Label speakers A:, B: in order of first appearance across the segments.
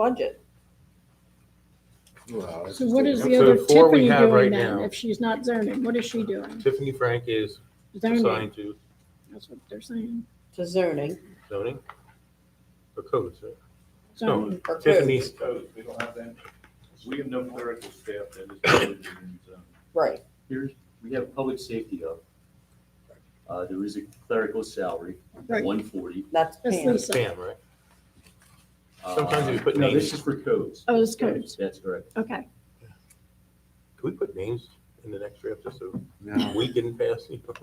A: budget.
B: Well, it's
C: So what is
B: just-
C: the
D: So
C: other
D: the four we
C: Tiffany
D: have right
C: doing then?
D: now-
C: If she's not zoning, what is she doing?
D: Tiffany Frank is
C: Zoning,
D: assigned to
C: that's what they're saying.
A: To zoning
D: zoning or codes, right?
C: Zoning.
A: or code,
D: Tiffany's,
E: codes, we don't have that. We have no clerical staff that is included in um, the zone.
A: right,
F: Here's, we have public safety up. Uh, there is a clerical salary,
C: Right.
F: one forty.
A: that's
C: That's
A: Pam.
C: Lisa.
D: Pam, right? Sometimes we put
F: Uh, No,
D: names.
F: this is for codes.
C: Oh, it's codes,
F: That's correct.
C: okay.
D: Can we put names in the next draft just so
B: No.
D: we can pass? you know?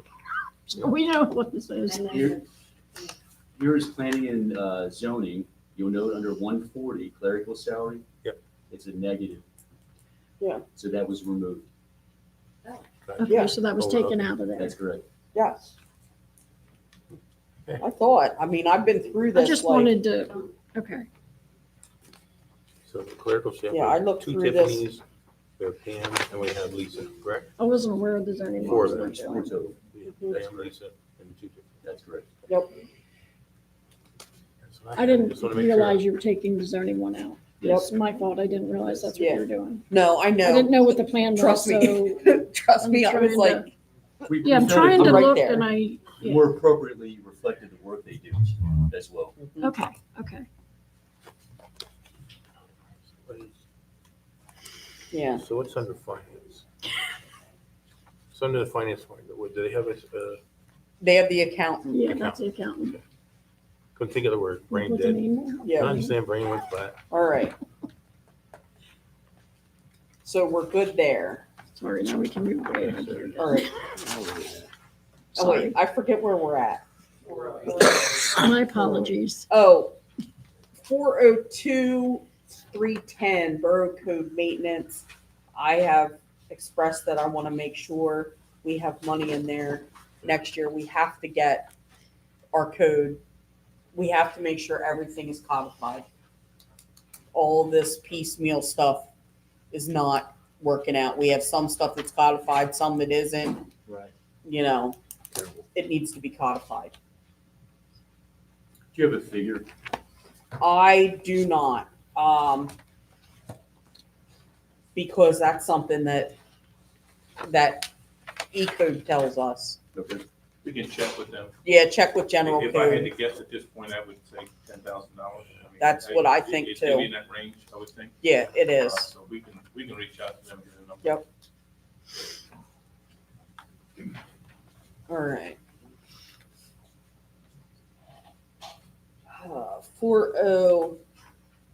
C: So we know what this is.
F: Here, here is planning and uh, zoning, you'll note under one forty clerical salary.
D: Yep.
F: It's a negative.
A: Yeah.
F: So that was removed,
A: Yeah.
C: Okay, so that was
D: Hold up.
C: taken out of there.
F: that's correct.
A: Yes. I thought, I mean, I've been through
C: I
A: this,
C: just
A: like,
C: wanted to, okay,
D: So the clerical staff.
A: Yeah, I looked
D: two
A: through this.
D: Tiffany's, We have Pam and we have Lisa, correct?
C: I wasn't aware of the zoning.
D: Four of
C: laws.
D: them.
F: It's total,
D: We have Pam, Lisa, and two. Tiffany.
F: That's correct.
D: That's what
C: I
D: had.
C: didn't
D: Just wanna make sure.
C: realize you were taking the zoning one out.
A: Yep.
C: It's my fault, I didn't realize that's what you were doing.
A: no, I
C: I didn't
A: know,
C: know what the plan was,
A: trust
C: so.
A: me, trust me, I was
C: I'm trying to-
A: like,
F: We-
C: Yeah, I'm
F: we felt it
C: trying to
A: right
C: look
A: there.
C: and I, yeah.
F: More appropriately reflected the work they do as well.
C: okay, okay.
A: yeah,
D: So what's under finance? It's under the finance part, but what- do they have a, uh,
A: they have the accountant,
C: Yeah, that's the accountant.
D: couldn't think of the word, brain
C: What's her
D: dead.
C: name now?
D: I
A: yeah,
D: understand brain went flat.
A: all right. So we're good there,
C: Sorry, now we can move away.
D: Yeah, sorry.
A: all right, oh
C: Sorry,
A: wait, I forget where we're at.
C: my apologies.
A: Oh, four oh two, three ten, Borough Code Maintenance. I have expressed that I want to make sure we have money in there. Next year, we have to get our code. We have to make sure everything is codified. All this piecemeal stuff is not working out. We have some stuff that's codified, some that isn't,
F: Right.
A: you know,
D: Terrible.
A: it needs to be codified.
F: Do you have a figure
A: I do not. Um, because that's something that, that E code tells us.
F: Okay.
E: We can check with them.
A: Yeah, check with general
E: If I had to
A: code.
E: guess at this point, I would say ten thousand dollars.
A: That's what I think,
E: It's gonna be
A: too.
E: in that range, I would think.
A: Yeah, it
E: Uh,
A: is.
E: So we can, we can reach out to them, get a number.
A: Yep. All right. Uh, Four oh,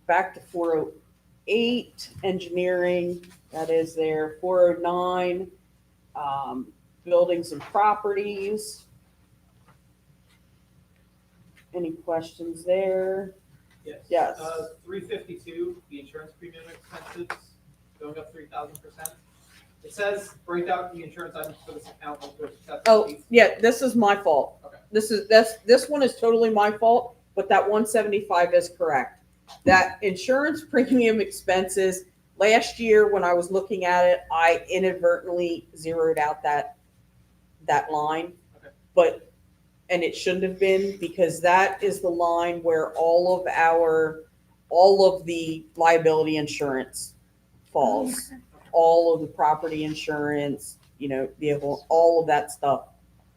A: back to four oh eight, engineering, that is there, four oh nine, um, buildings and properties. Any questions there?
G: Yes. Uh,
A: Yes.
G: Three fifty-two, the insurance premium expenses going up three thousand percent. It says break out the insurance items for this account. like there's excess
A: Oh,
G: fees.
A: yeah, this is my fault.
G: Okay.
A: This is, that's, this one is totally my fault, but that one seventy-five is correct. That insurance premium expenses, last year when I was looking at it, I inadvertently zeroed out that, that line.
G: Okay.
A: But, and it shouldn't have been, because that is the line where all of our, all of the liability insurance falls all of the property insurance, you know, vehicle, all of that stuff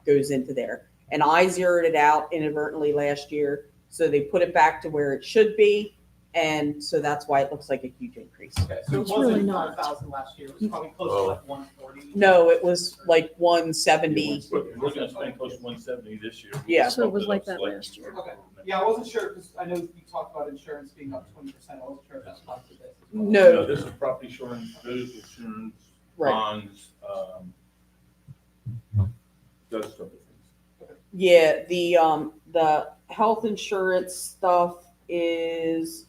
A: goes into there. And I zeroed it out inadvertently last year, so they put it back to where it should be. And so that's why it looks like a huge increase.
G: Okay, so it
C: It's really
G: wasn't
C: not.
G: five thousand last year, it was probably close
D: Oh.
G: to like one forty.
A: No, it was like one seventy.
E: We're we're gonna spend close to one seventy this year.
A: Yeah.
C: So it was like that last year.
G: Okay. Yeah, I wasn't sure, because I know you talked about insurance being up twenty percent, I wasn't sure if that's possible.
E: No,
A: No,
E: this is property insurance, those insurance,
A: right.
E: bonds, um, those sort of things.
A: Yeah, the um the health insurance stuff is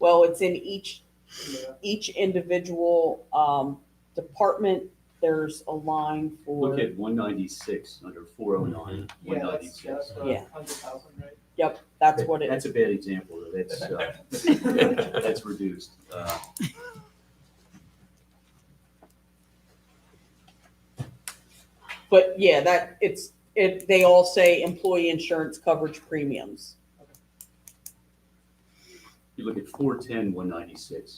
A: well, it's in each
G: Yeah.
A: each individual um department. There's a line for
F: Look at one ninety-six under four oh nine, one
G: Yeah, that's, yeah,
F: ninety-six.
G: that's a
A: Yeah.
G: hundred thousand, right?
A: Yep, that's what it
F: That's
A: is.
F: a bad example, though. that's, uh, that's reduced. Uh,
A: But yeah, that, it's, it, they all say employee insurance coverage premiums.
F: You you look at four ten, one ninety-six.